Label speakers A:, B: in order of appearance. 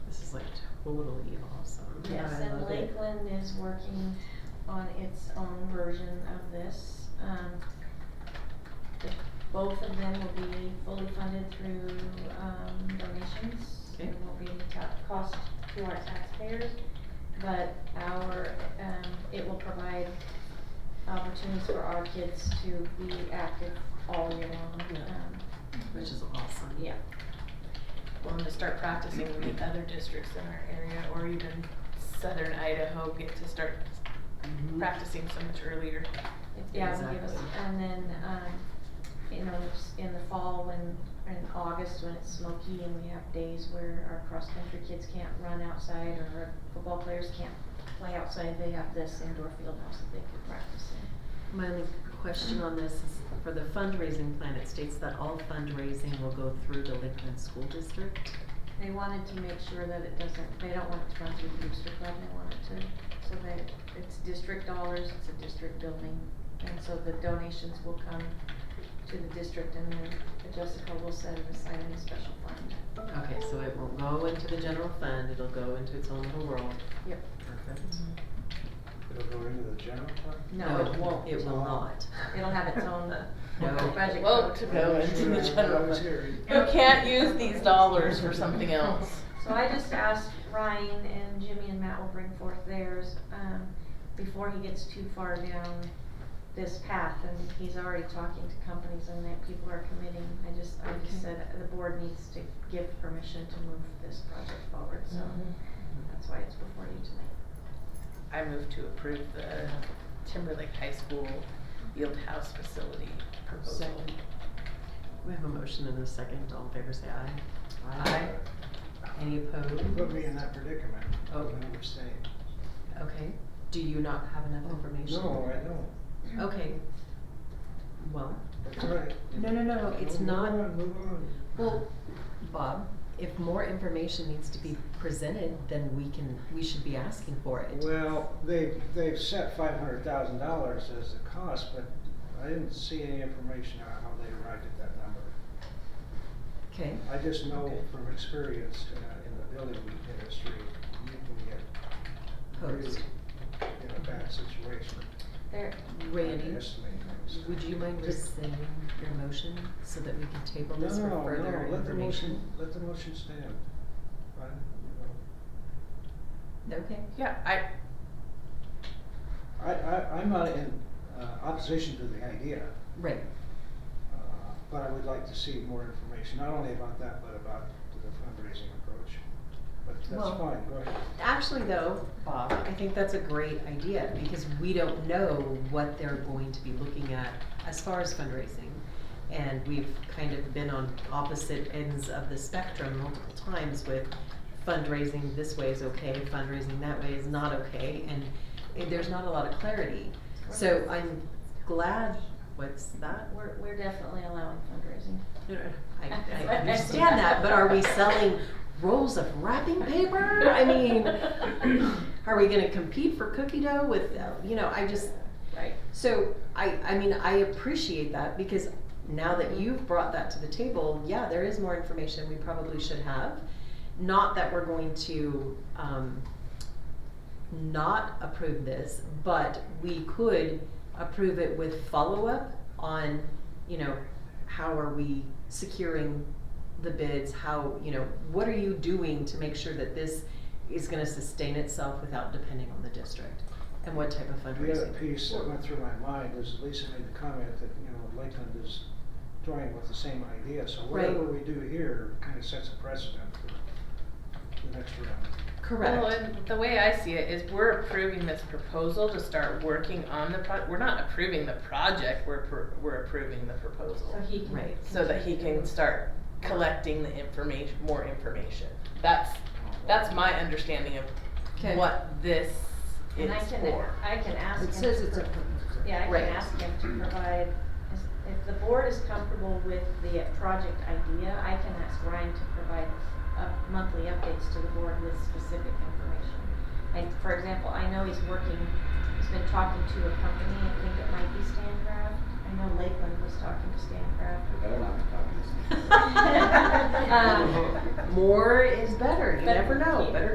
A: totally awesome.
B: Yes,
A: I
B: and
A: love it.
B: Lakeland is working on its own version of this. Um, the- Both of them will be fully funded through, um, donations.
A: Okay.
B: It will be ta- cost to our taxpayers, but our, um, it will provide opportunities for our kids to be active all year long.
A: Yeah.
B: Um,
A: Which is awesome.
B: Yeah,
C: Well, and to start practicing with other districts in our area or even southern Idaho get to start
A: Mhm.
C: practicing so much earlier.
B: It- Yeah, it'll give us,
A: Exactly.
B: and then, um, you know, s- in the fall when, in August when it's smoky and we have days where our cross-country kids can't run outside or our football players can't play outside, they have this indoor field house that they can practice in.
A: My only question on this is for the fundraising plan, it states that all fundraising will go through the Lakeland School District.
B: They wanted to make sure that it doesn't, they don't want it to run through the booster club, they want it to, so that it's district dollars, it's a district building. And so the donations will come to the district and then Jessica will set it aside in a special fund.
A: Okay, so it won't go into the general fund, it'll go into its own little world.
B: Yep.
A: Perfect.
D: It'll go into the general fund?
B: No, it won't.
A: It will not.
B: It'll have its own
A: uh, No.
B: budget.
C: Won't go into the general fund. You can't use these dollars for something else.
B: So I just asked Ryan and Jimmy and Matt will bring forth theirs, um, before he gets too far down this path, and he's already talking to companies and that people are committing. I just, I
C: Okay.
B: just said the board needs to give permission to move this project forward, so
A: Mm-hmm.
B: that's why it's before you tonight.
C: I move to approve the Timberlake High School Field House Facility proposal.
A: Second. We have a motion and a second, all in favor say aye.
C: Aye.
A: Any opposed?
D: Put me in that predicament.
A: Oh.
D: I'm never saying.
A: Okay, do you not have enough information?
D: No, I don't.
A: Okay. Well,
D: That's right.
A: no, no, no, no, it's
D: Move
A: not.
D: on, Move on.
A: Well, Bob, if more information needs to be presented, then we can, we should be asking for it.
D: Well, they've, they've set five hundred thousand dollars as the cost, but I didn't see any information on how they arrived at that number.
A: Okay,
D: I just know
A: Okay.
D: from experience uh, in the building industry, you can get really
A: posed.
D: in a bad situation.
B: There,
A: Randy,
D: Underestimate things.
A: would you mind rescinding your motion so that we can table this for
D: No,
A: further
D: no, let the motion,
A: information?
D: let the motion stand. I, you
A: Okay,
C: Yeah, I,
D: know, I, I, I'm not in, uh, opposition to the idea,
A: right,
D: uh, but I would like to see more information, not only about that, but about the fundraising approach. But
A: Well-
D: that's fine, go ahead.
A: Actually, though, Bob, I think that's a great idea because we don't know what they're going to be looking at as far as fundraising. And we've kind of been on opposite ends of the spectrum multiple times with fundraising this way is okay, fundraising that way is not okay, and eh, there's not a lot of clarity. So I'm glad, what's that?
B: we're, we're definitely allowing fundraising.
A: No, no, no, I, I understand that, but are we selling rolls of wrapping paper? I mean, are we gonna compete for cookie dough with, uh, you know, I just,
B: Right.
A: so, I, I mean, I appreciate that because now that you've brought that to the table, yeah, there is more information we probably should have. Not that we're going to, um, not approve this, but we could approve it with follow-up on, you know, how are we securing the bids, how, you know, what are you doing to make sure that this is gonna sustain itself without depending on the district? And what type of
D: The
A: fundraising?
D: other piece that went through my mind is Lisa made the comment that, you know, Lakeland is toying with the same idea, so
A: Right.
D: whatever we do here kind of sets a precedent for the next round.
A: Correct.
C: Well, and the way I see it is we're approving this proposal to start working on the pro, we're not approving the project, we're, appro- we're approving the
B: So
C: proposal.
B: he can.
A: Right.
C: So that he can start collecting the information, more information. That's, that's my understanding
A: Okay.
C: of what this is
B: And I can,
C: for.
B: I can ask him.
A: It says it's
B: for-
A: a.
B: Yeah, I
A: Right.
B: can ask him to provide, is- if the board is comfortable with the project idea, I can ask Ryan to provide up, monthly updates to the board with specific information. And for example, I know he's working, he's been talking to a company, I think it might be Stancraft. I know Lakeland was talking to Stancraft.
E: I better not be talking to this.
B: Um,
A: More is better. You
B: But-
A: never know. Better